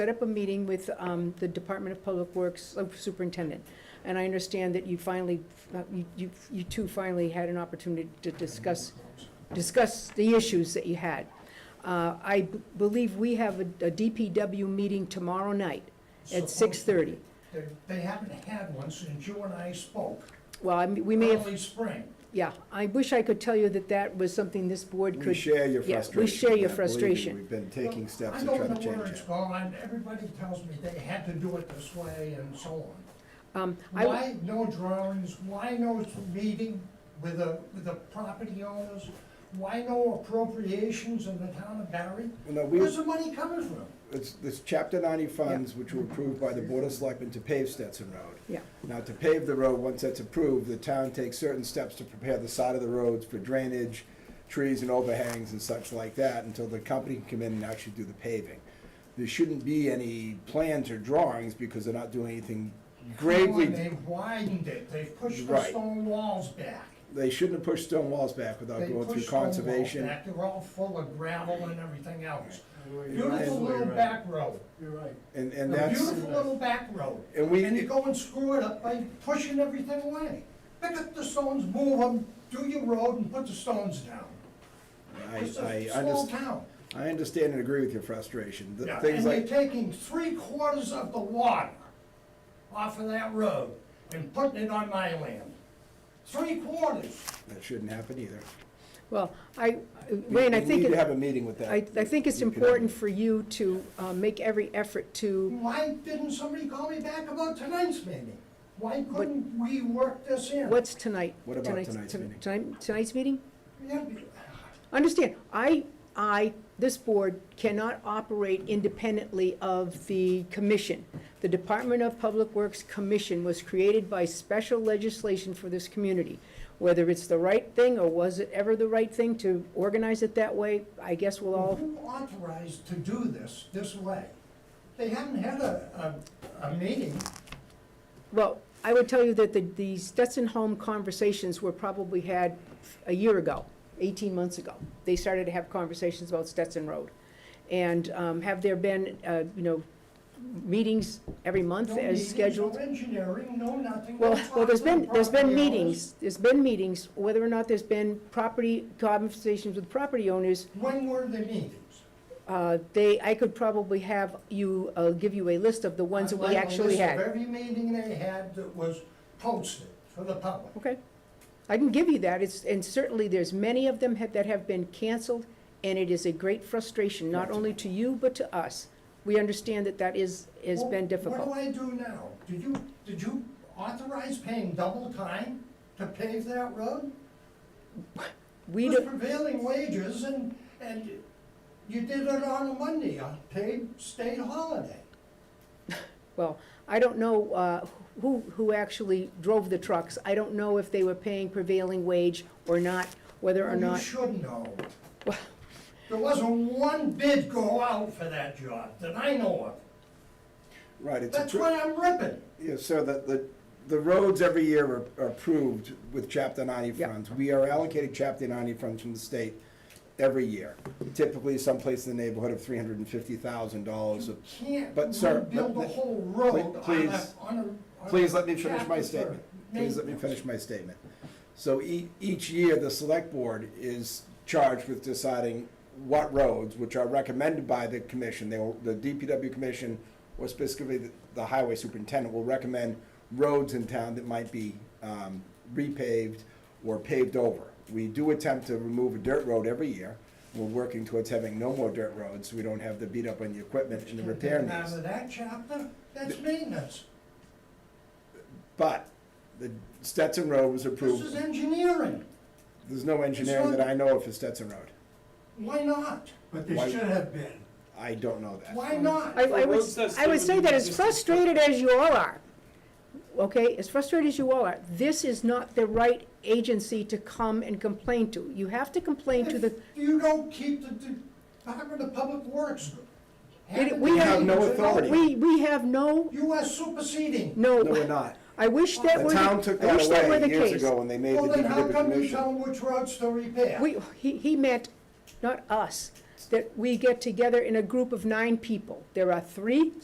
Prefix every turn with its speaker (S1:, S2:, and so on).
S1: set up a meeting with um, the Department of Public Works uh, Superintendent, and I understand that you finally, uh, you- you you two finally had an opportunity to discuss, discuss the issues that you had. Uh, I b- believe we have a a DPW meeting tomorrow night at
S2: Supposed-
S1: 6:30.
S2: They, they haven't had one since you and I spoke.
S1: Well, I mean, we may have,
S2: Early spring.
S1: yeah, I wish I could tell you that that was something this board could.
S3: We share your
S1: yeah, we
S3: frustration.
S1: share your
S3: Believe me,
S1: frustration.
S3: We've been taking steps
S2: I
S3: to
S2: know
S3: try to
S2: the
S3: change
S2: words,
S3: it.
S2: Paul, and everybody tells me they had to do it this way and so on.
S1: um, I-
S2: Why no drawings, why no meeting with the, with the property owners? Why no appropriations in the town of Barry?
S3: No, we,
S2: Where's the money coming from?
S3: it's, this chapter ninety funds, which were approved by the Board of Selectmen to pave Stetson Road.
S1: Yeah.
S3: Now, to pave the road, once that's approved, the town takes certain steps to prepare the side of the roads for drainage, trees and overhangs and such like that, until the company can come in and actually do the paving. There shouldn't be any plans or drawings, because they're not doing anything
S2: Come on,
S3: gravely.
S2: They've widened it, they've pushed the
S3: Right.
S2: stone walls back.
S3: They shouldn't have pushed stone walls back without
S2: They
S3: going through
S2: pushed stone walls
S3: conservation.
S2: back. They're all full of gravel and everything else.
S4: You're right.
S2: Beautiful
S3: Absolutely
S2: little back road.
S4: You're right.
S3: And,
S2: A
S3: and that's,
S2: beautiful little back road.
S3: and we.
S2: And you go and screw it up by pushing everything away. Pick up the stones, move them, do your road and put the stones down. It's
S3: I,
S2: a
S3: I
S2: small
S3: understand,
S2: town.
S3: I understand and agree with your frustration. The
S2: Yeah,
S3: Things
S2: And they're
S3: like,
S2: taking three quarters of the water off of that road and putting it on my land. Three quarters.
S3: that shouldn't happen either.
S1: Well, I,
S3: We-
S1: Wayne, I
S3: we
S1: think.
S3: need
S1: it-
S3: to have a meeting with that.
S1: I, I think it's
S3: You can-
S1: important for you to uh, make every effort to,
S2: Why didn't somebody call me back about tonight's meeting? Why couldn't we work this in?
S1: what's tonight?
S3: What about tonight's
S1: ton-
S3: meeting?
S1: tonight- Tonight's meeting?
S2: Yeah,
S1: Understand, I, I, this board cannot operate independently of the commission. The Department of Public Works Commission was created by special legislation for this community. Whether it's the right thing, or was it ever the right thing to organize it that way, I guess we'll all,
S2: Who authorized to do this, this way? They haven't had a, a, a meeting.
S1: well, I would tell you that the, the Stetson Home conversations were probably had a year ago, 18 months ago. They started to have conversations about Stetson Road. And um, have there been, uh, you know, meetings every
S2: No
S1: month as
S2: meetings,
S1: scheduled?
S2: No engineering, no nothing. no
S1: Well, well, there's been, there's been
S2: property owners.
S1: meetings, there's been meetings, whether or not there's been property, conversations with property owners,
S2: When were the meetings?
S1: uh, they, I could probably have you, uh, give you a list of the ones that
S2: I'd
S1: we
S2: like a
S1: actually
S2: list of
S1: had.
S2: Every meeting they had that was posted for the public.
S1: Okay? I can give you that, it's, and certainly there's many of them have- that have been canceled, and it is a great frustration, not only to you, but to us. We understand that that is, has
S2: Well,
S1: been difficult.
S2: What do I do now? Did you, did you authorize paying double time to pave that road?
S1: We
S2: With
S1: don't,
S2: prevailing wages and, and you did it on a Monday, a paid state holiday.
S1: Well, I don't know uh, who, who actually drove the trucks. I don't know if they were paying prevailing wage or not, whether or
S2: You
S1: not.
S2: should know.
S1: Well-
S2: There wasn't one bid go out for that job that I know
S3: Right,
S2: of.
S3: it's,
S2: That's
S3: appro-
S2: why I'm ripping.
S3: yeah, so the, the, the roads every year are- are approved with chapter ninety
S1: Yeah.
S3: funds. We are allocated chapter ninety funds from the state every year. Typically someplace in the neighborhood of three hundred and fifty thousand dollars
S2: You can't
S3: but, sir,
S2: rebuild
S3: but-
S2: a whole road
S3: pl-
S2: on a,
S3: please-
S2: on a. on a
S3: Please let me finish my
S2: chapter
S3: statement.
S2: thirty.
S3: Please let me finish my statement. So e- each year, the select board is charged with deciding what roads, which are recommended by the commission, they will, the DPW commission, or specifically the- the highway superintendent, will recommend roads in town that might be um, repaved or paved over. We do attempt to remove a dirt road every year. We're working towards having no more dirt roads, so we don't have the beat up on the equipment and the
S2: Can't
S3: repair
S2: take it
S3: needs.
S2: Out of that chapter, that's maintenance.
S3: But the Stetson Road was
S2: This is
S3: approved.
S2: engineering.
S3: There's no engineering that I know of for Stetson Road.
S2: Why not?
S4: But
S3: Why-
S4: there should have been.
S3: I don't know that.
S2: Why not?
S1: I, I would,
S5: Roads that
S1: I would
S5: still
S1: say that as
S5: exist.
S1: frustrated as you all are, okay, as frustrated as you all are, this is not the right agency to come and complain to. You have to complain to the,
S2: If You don't keep the the Department of Public Works.
S1: It- we
S3: have no authority.
S1: we, we have no,
S2: You are superseding.
S1: no.
S3: No, we're not.
S1: I wish that
S3: The
S1: were, the-
S3: town took
S1: I
S3: that
S1: wish that were the
S3: away
S1: case.
S3: years ago when they made the
S2: Well, then how
S3: DPW
S2: come you
S3: commission.
S2: tell them which roads to repair?
S1: We, he, he meant, not us, that we get together in a group of nine people. There are three